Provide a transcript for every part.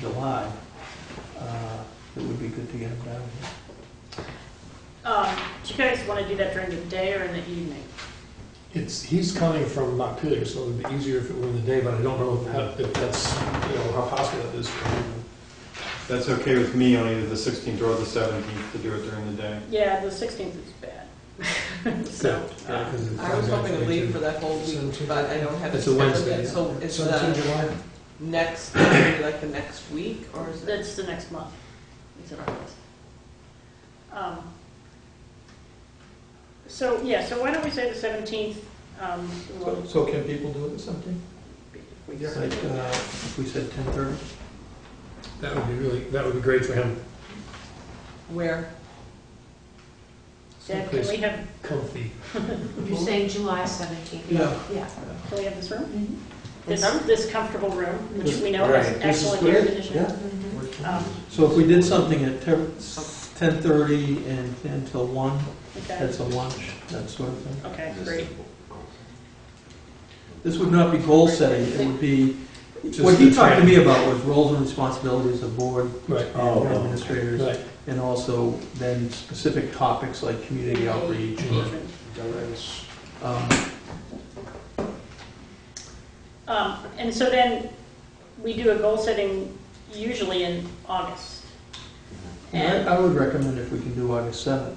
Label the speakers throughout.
Speaker 1: July, uh, it would be good to get them down here.
Speaker 2: Um, do you guys want to do that during the day or in the evening?
Speaker 3: It's, he's coming from Montpelier, so it would be easier if it were in the day, but I don't know how- if that's, you know, how possible that is. for him.
Speaker 4: That's okay with me on either the 16th or the 17th to do it during the day.
Speaker 2: Yeah, the 16th is bad. So,
Speaker 3: Yeah,
Speaker 2: uh,
Speaker 3: 'cause it's-
Speaker 5: I was hoping to leave for that whole week, but I don't have. it
Speaker 3: It's a
Speaker 5: scheduled
Speaker 3: Wednesday,
Speaker 5: yet,
Speaker 3: yeah.
Speaker 5: So it's uh,
Speaker 3: So it's in
Speaker 5: the
Speaker 3: July?
Speaker 5: next, maybe like the next week, or is it?
Speaker 2: that's the next month. It's in August. Um, So, yeah, so why don't we say the 17th? um, we'll-
Speaker 6: So can people do it or something?
Speaker 2: if we-
Speaker 1: Like, uh, if we said 10:30?
Speaker 3: That would be really, that would be great for him.
Speaker 5: Where?
Speaker 2: Deb, can we
Speaker 3: Someplace
Speaker 2: have,
Speaker 3: comfy.
Speaker 7: You're saying July 17th?
Speaker 6: Yeah.
Speaker 7: Yeah.
Speaker 2: can we have this room?
Speaker 7: Mhm.
Speaker 2: This,
Speaker 7: Mhm.
Speaker 2: this comfortable room, which
Speaker 1: This-
Speaker 2: we know has
Speaker 6: right.
Speaker 1: This is
Speaker 2: excellent
Speaker 1: good,
Speaker 2: air conditioning.
Speaker 7: Mhm.
Speaker 2: Um,
Speaker 1: So if we did something at ter- 10:30 and 10 till 1,
Speaker 2: Okay,
Speaker 1: that's a lunch, that sort of thing.
Speaker 2: okay, great.
Speaker 1: This would not be goal setting, it would be, what
Speaker 3: Just
Speaker 1: he
Speaker 3: the
Speaker 1: talked to
Speaker 3: training.
Speaker 1: me about was roles and responsibilities of board
Speaker 3: Right,
Speaker 6: Oh,
Speaker 1: and administrators,
Speaker 3: right.
Speaker 1: and also then specific topics like community outreach. or,
Speaker 2: Engagement.
Speaker 1: um,
Speaker 2: Um, And so then, we do a goal setting usually in August.
Speaker 1: and
Speaker 2: And,
Speaker 1: I I would recommend if we can do August 7th.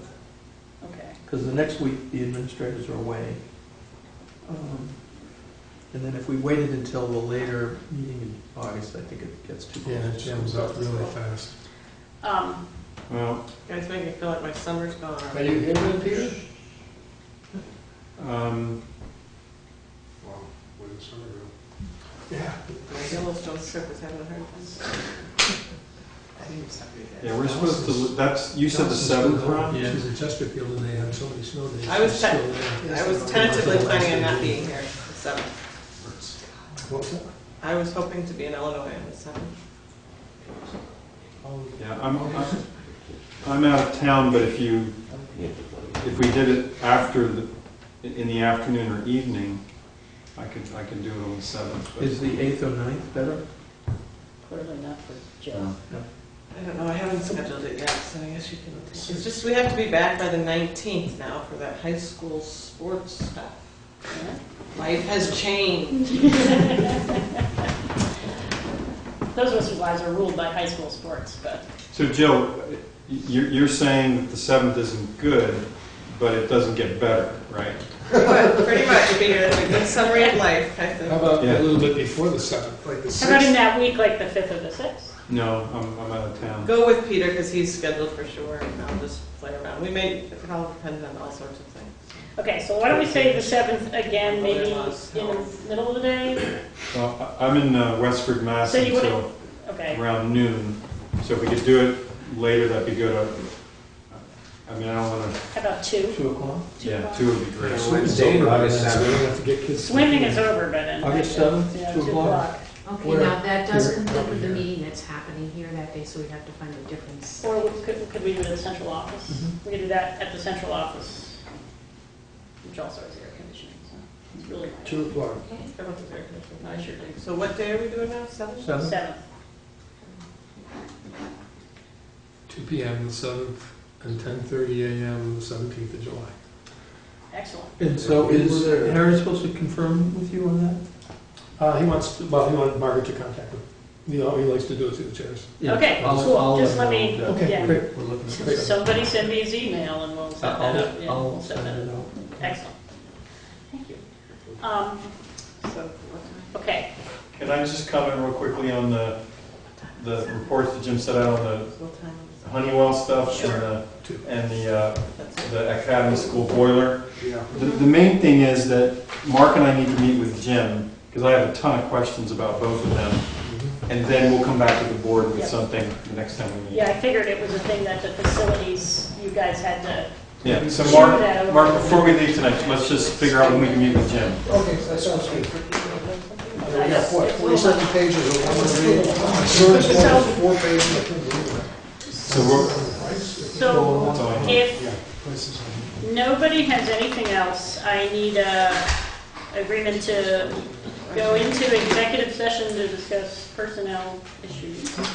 Speaker 2: okay,
Speaker 1: Because the next week, the administrators are away. Um, And then if we waited until the later meeting in August, I think it gets too
Speaker 3: Yeah, it
Speaker 1: close.
Speaker 3: jams up really fast.
Speaker 2: um,
Speaker 4: Well,
Speaker 5: Guys make me feel like my summer's gone already.
Speaker 3: you here with Peter?
Speaker 4: um,
Speaker 3: Yeah.
Speaker 5: My Yellowstone trip is having a hard time. I need to stop you guys.
Speaker 4: yeah, we're supposed to, that's, you said the 7th, Ron?
Speaker 1: Yeah.
Speaker 3: She's in Chesterfield and they had so many snow days.
Speaker 5: I was
Speaker 3: She's
Speaker 5: te-
Speaker 3: still there.
Speaker 5: I was tentatively planning on not being here the seventh.
Speaker 3: What's that?
Speaker 5: I was hoping to be in Illinois on the seventh.
Speaker 4: Yeah, I'm, I'm- I'm out of town, but if you, if we did it after, the in the afternoon or evening, I could, I could do it on the 7th. but-
Speaker 1: Is the 8th or 9th better?
Speaker 2: clearly not for Jill.
Speaker 4: Yeah.
Speaker 5: I don't know, I haven't scheduled it yet, so I guess you can, it's just, we have to be back by the nineteenth now for that high school sports stuff. Life has changed.
Speaker 2: Those of us who lives are ruled by high school sports, but,
Speaker 4: So Jill, you're, you're saying that the 7th isn't good, but it doesn't get better, right?
Speaker 5: But pretty much, Peter, it's a good summary of life, I think.
Speaker 3: How about
Speaker 4: Yeah.
Speaker 3: a little bit before the seventh, like the
Speaker 2: how about in
Speaker 3: sixth?
Speaker 2: that week, like the 5th or the 6th?
Speaker 4: No, I'm, I'm out of town.
Speaker 5: Go with Peter, because he's scheduled for sure, and I'll just play around. We may, it all depend on all sorts of things.
Speaker 2: Okay, so why don't we say the 7th again, maybe in
Speaker 5: Otherwise,
Speaker 2: the middle of the day?
Speaker 4: Well, I- I'm in uh, Westford, Mass.
Speaker 2: So you
Speaker 4: until-
Speaker 2: wouldn't- Okay,
Speaker 4: around noon, so if we could do it later, that'd be good. I- I mean, I don't wanna,
Speaker 2: how about 2?
Speaker 1: 2 o'clock?
Speaker 4: yeah, two would be
Speaker 3: Yeah,
Speaker 4: great.
Speaker 3: Swimming's over, by then, so we don't have to get kids.
Speaker 2: Swimming is over by then.
Speaker 1: August 7th,
Speaker 2: Yeah,
Speaker 1: two
Speaker 2: two
Speaker 1: o'clock.
Speaker 2: o'clock.
Speaker 7: Okay,
Speaker 3: Where?
Speaker 7: now that does
Speaker 3: Here.
Speaker 7: conflict with the
Speaker 3: Here.
Speaker 7: meeting that's happening here that day, so we'd have to find a different. s-
Speaker 2: Or we- could, could we do it at the central office?
Speaker 1: Mhm.
Speaker 2: We could do that at the central office, which also has air conditioning, so it's really nice.
Speaker 3: Two o'clock.
Speaker 5: I don't think there can-
Speaker 2: I sure do.
Speaker 5: So what day are we doing now, seven?
Speaker 1: 7th?
Speaker 2: Seventh,
Speaker 3: Two P M, the seventh, and ten thirty A M, the seventeenth of July.
Speaker 2: excellent.
Speaker 1: And so is Harry supposed to confirm with you on that?
Speaker 3: Uh, he wants, well, he wanted Margaret to contact him. You know, he likes to do it through the chairs.
Speaker 1: Yeah,
Speaker 2: Okay,
Speaker 1: I'll-
Speaker 2: cool.
Speaker 1: I'll
Speaker 2: Just
Speaker 1: him
Speaker 2: let
Speaker 1: know
Speaker 2: me-
Speaker 1: that
Speaker 3: Okay,
Speaker 2: yeah.
Speaker 1: we're- We're looking for
Speaker 3: Great.
Speaker 2: Somebody send me his email and we'll set that up.
Speaker 1: I'll,
Speaker 2: Yeah, we'll
Speaker 1: I'll
Speaker 2: set that
Speaker 1: send
Speaker 2: up.
Speaker 1: it out.
Speaker 2: Excellent. Thank you. Um,
Speaker 5: So, what time?
Speaker 2: okay,
Speaker 4: Can I just comment real quickly on the, the reports that Jim set out on
Speaker 5: What time is
Speaker 4: the Honeywell stuff
Speaker 2: Sure.
Speaker 4: and the,
Speaker 3: Two.
Speaker 4: and the, uh,
Speaker 5: it? That's it.
Speaker 4: the academy school boiler?
Speaker 3: Yeah.
Speaker 4: The, the main thing is that Mark and I need to meet with Jim, because I have a ton of questions about both of them,
Speaker 3: Mm-hmm.
Speaker 4: and then we'll come back to the board with
Speaker 2: Yeah.
Speaker 4: something the next time we meet.
Speaker 2: yeah, I figured it was a thing that the facilities, you guys had to,
Speaker 4: Yeah, so
Speaker 2: Sure, that
Speaker 4: Mark,
Speaker 2: would-
Speaker 4: Mark, before we leave tonight, let's just figure out when we can meet with Jim.
Speaker 6: Okay, that sounds good. We
Speaker 2: Yes,
Speaker 6: got what,
Speaker 2: it will.
Speaker 6: forty-seven pages of one read? Insurance form is four pages, I couldn't read that.
Speaker 4: So we're,
Speaker 2: so
Speaker 4: that's all I have.
Speaker 2: if
Speaker 3: Places.
Speaker 2: Nobody has anything else. I need a agreement to go into executive session to discuss personnel issues.